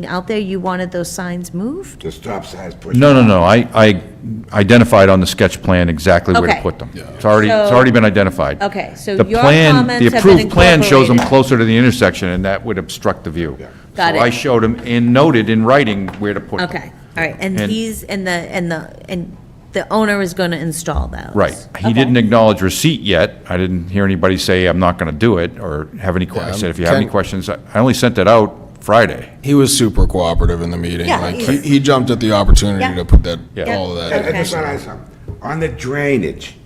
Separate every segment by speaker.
Speaker 1: being out there, you wanted those signs moved?
Speaker 2: The stop sign's pushed.
Speaker 3: No, no, no, I, I identified on the sketch plan exactly where
Speaker 1: Okay.
Speaker 3: to put them. It's already, it's
Speaker 1: So-
Speaker 3: already been identified.
Speaker 1: Okay, so
Speaker 3: The
Speaker 1: your
Speaker 3: plan-
Speaker 1: comments have been
Speaker 3: The approved plan shows them
Speaker 1: incorporated.
Speaker 3: closer to the intersection, and that would obstruct the view.
Speaker 1: Got
Speaker 3: So
Speaker 1: it.
Speaker 3: I showed them and noted in writing where to put them.
Speaker 1: Okay, all right, and
Speaker 3: And-
Speaker 1: these, and the, and the, and the owner is going to install those?
Speaker 3: Right.
Speaker 1: Okay.
Speaker 3: He didn't acknowledge receipt yet. I didn't hear anybody say, I'm not going to do it, or have any, que- I said, if you have any
Speaker 4: Ken-
Speaker 3: questions, I I only sent that out Friday.
Speaker 4: He was super cooperative in the meeting.
Speaker 1: Yeah,
Speaker 4: Like,
Speaker 1: he
Speaker 4: he,
Speaker 1: is.
Speaker 4: he jumped at the opportunity
Speaker 1: Yeah.
Speaker 4: to put that,
Speaker 3: Yeah.
Speaker 4: all of
Speaker 2: I I
Speaker 4: that.
Speaker 1: Okay.
Speaker 2: just want to ask something. On the drainage,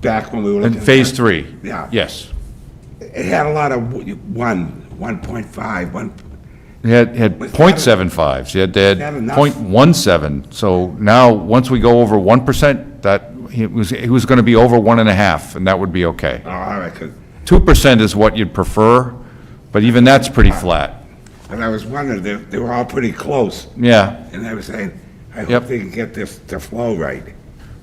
Speaker 2: back when we were looking.
Speaker 3: And
Speaker 2: at
Speaker 3: phase
Speaker 2: that,
Speaker 3: three?
Speaker 2: Yeah.
Speaker 3: Yes.
Speaker 2: It had a lot of w- one, 1.5, one,
Speaker 3: He had, had
Speaker 2: Was that
Speaker 3: point
Speaker 2: a-
Speaker 3: seven fives, he had, they
Speaker 2: that
Speaker 3: had
Speaker 2: enough?
Speaker 3: point one seven, so now, once we go over one percent, that, he was, he was gonna be over one and a half, and that would be okay.
Speaker 2: oh, all right, 'cause-
Speaker 3: Two percent is what you'd prefer, but even that's pretty flat,
Speaker 2: and I was wondering, they, they were all pretty close.
Speaker 3: yeah.
Speaker 2: And I was saying, I hope
Speaker 3: Yep.
Speaker 2: they can get this to flow right.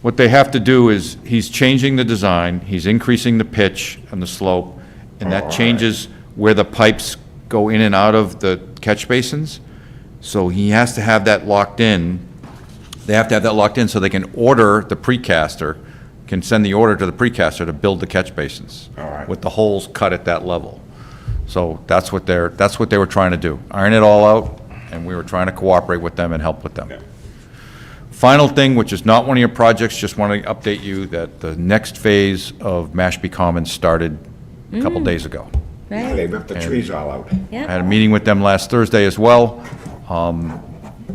Speaker 3: What they have to do is, he's changing the design, he's increasing the pitch and the slope, and that changes where the pipes go in and out of the catch basins. So he has to have that locked in. They have to have that locked in so they can order the precaster, can send the order to the precaster to build the catch basins.
Speaker 2: All right.
Speaker 3: With the holes cut at that level. So that's what they're, that's what they were trying to do, iron it all out, and we were trying to cooperate with them and help with them. Final thing, which is not one of your projects, just want to update you that the next phase of Mashpee Commons started a couple days ago.
Speaker 1: Right,
Speaker 2: They ripped the trees all out.
Speaker 3: I
Speaker 1: yeah,
Speaker 3: had a meeting with them last Thursday as well, um,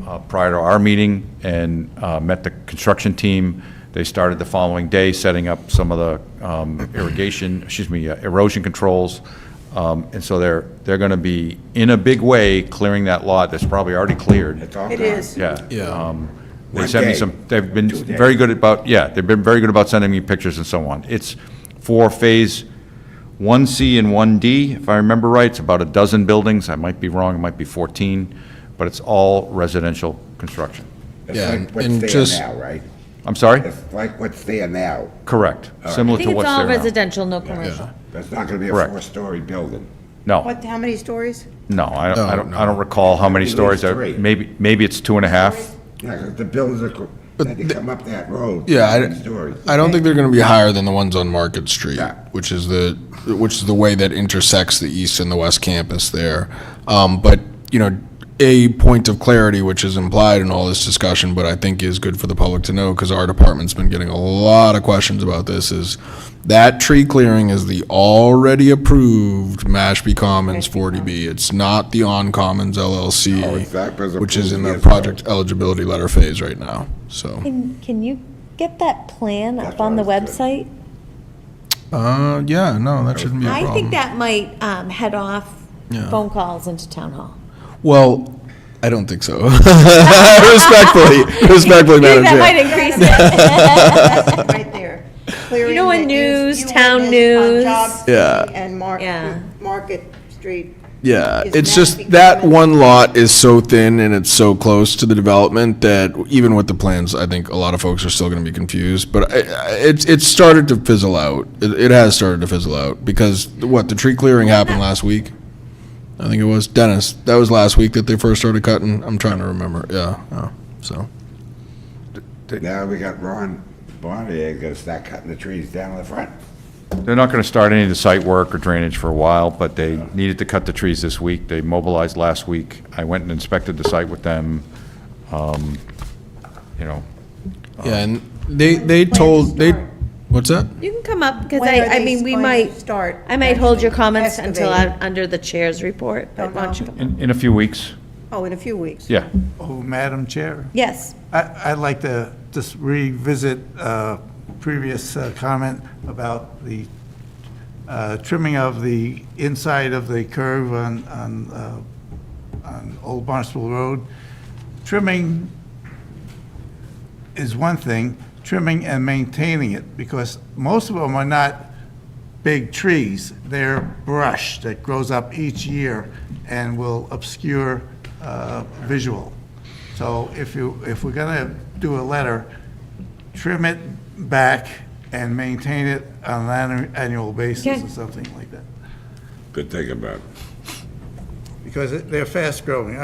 Speaker 3: uh, prior to our meeting, and uh, met the construction team. They started the following day, setting up some of the um, irrigation, excuse me, uh, erosion controls. Um, And so they're, they're going to be, in a big way, clearing that lot that's probably already cleared.
Speaker 2: It's all
Speaker 5: It
Speaker 2: gone.
Speaker 5: is.
Speaker 3: Yeah.
Speaker 4: Yeah.
Speaker 3: They sent me
Speaker 2: day.
Speaker 3: some, they've been
Speaker 2: days.
Speaker 3: very good about, yeah, they've been very good about sending me pictures and so on. It's for Phase 1C and 1D, if I remember right, it's about a dozen buildings, I might be wrong, it might be 14, but it's all residential construction.
Speaker 2: It's
Speaker 4: Yeah,
Speaker 2: like
Speaker 4: and-
Speaker 2: what's
Speaker 4: and
Speaker 2: there
Speaker 4: just-
Speaker 2: now, right?
Speaker 3: I'm sorry?
Speaker 2: It's like what's there now.
Speaker 3: Correct,
Speaker 1: I
Speaker 3: similar
Speaker 1: think
Speaker 3: to
Speaker 1: it's
Speaker 3: what's
Speaker 1: all
Speaker 3: there now.
Speaker 1: residential, no commercial.
Speaker 2: That's not going to be a
Speaker 3: Correct.
Speaker 2: four-story building.
Speaker 3: No,
Speaker 5: What, how many stories?
Speaker 3: no, I don't- I
Speaker 4: No,
Speaker 3: don't,
Speaker 4: no.
Speaker 3: I don't recall how many
Speaker 2: Maybe
Speaker 3: stories,
Speaker 2: it's
Speaker 3: I-
Speaker 2: three.
Speaker 3: maybe, maybe it's two and a half.
Speaker 2: Yeah, 'cause the buildings are, co- had to come up that road.
Speaker 4: Yeah,
Speaker 2: seven stories.
Speaker 4: I, I don't think they're going to be higher than the ones on Market Street,
Speaker 2: Yeah.
Speaker 4: which is the which is the way that intersects the east and the west campus there. Um, but you know, a point of clarity, which is implied in all this discussion, but I think is good for the public to know because our department's been getting a lot of questions about this. Is that tree clearing is the already approved Mashpee Commons 40B? It's not the On Commons LLC,
Speaker 2: Oh, that was
Speaker 4: which is in the
Speaker 2: approved years ago.
Speaker 4: project eligibility letter phase right now. So.
Speaker 1: Can, can you get that plan
Speaker 2: That's
Speaker 1: up
Speaker 2: what
Speaker 1: on
Speaker 2: I
Speaker 1: the
Speaker 2: was
Speaker 1: website?
Speaker 4: Uh, yeah, no, that shouldn't be a
Speaker 1: I
Speaker 4: problem.
Speaker 1: think that might um, head off phone calls into town hall.
Speaker 4: Well, I don't think so. respectfully, respectfully, Madam
Speaker 1: That
Speaker 4: Chair.
Speaker 1: might increase it.
Speaker 5: Right there. Clearing
Speaker 1: know, in
Speaker 5: that you-
Speaker 1: news,
Speaker 5: you
Speaker 1: town
Speaker 5: had this on
Speaker 1: news.
Speaker 5: Job Street
Speaker 4: Yeah.
Speaker 5: And Mark,
Speaker 1: Yeah.
Speaker 5: Market Street.
Speaker 4: yeah,
Speaker 5: is
Speaker 4: it's
Speaker 5: that
Speaker 4: just
Speaker 5: because
Speaker 4: that
Speaker 5: of-
Speaker 4: one lot is so thin and it's so close to the development that even with the plans, I think a lot of folks are still going to be confused. But I- I- it's it's started to fizzle out. It, it has started to fizzle out because what the tree clearing happened last week. I think it was Dennis. That was last week that they first started cutting. I'm trying to remember. Yeah. Oh, so
Speaker 2: Now we got Ron Bonnier going to start cutting the trees down in the front.
Speaker 3: They're not going to start any of the site work or drainage for a while, but they needed to cut the trees this week. They mobilized last week. I went and inspected the site with them. Um, You know,
Speaker 4: yeah, and they they told they what's that?
Speaker 1: You can come up, because
Speaker 5: When are
Speaker 1: I, I
Speaker 5: they
Speaker 1: mean, we
Speaker 5: going to
Speaker 1: might,
Speaker 5: start
Speaker 1: I might hold your
Speaker 5: actually
Speaker 1: comments until,
Speaker 5: excavating?
Speaker 1: I'm under the chair's report, but
Speaker 5: Don't
Speaker 1: why don't you
Speaker 5: know.
Speaker 1: come?
Speaker 3: in, in a few weeks,
Speaker 5: Oh, in a few weeks.
Speaker 3: yeah.
Speaker 6: Oh, Madam Chair,
Speaker 1: Yes,
Speaker 6: I- I'd like to just revisit uh, previous uh, comment about the uh, trimming of the inside of the curve on, on, uh, on Old Barnstable Road. Trimming is one thing, trimming and maintaining it, because most of them are not big trees. They're brush that grows up each year and will obscure uh, visual. So if you, if we're going to do a letter, trim it back and maintain it on an annu- annual basis
Speaker 1: Okay.
Speaker 6: or something like that.
Speaker 2: Good thing about it.
Speaker 6: because it- they're fast-growing.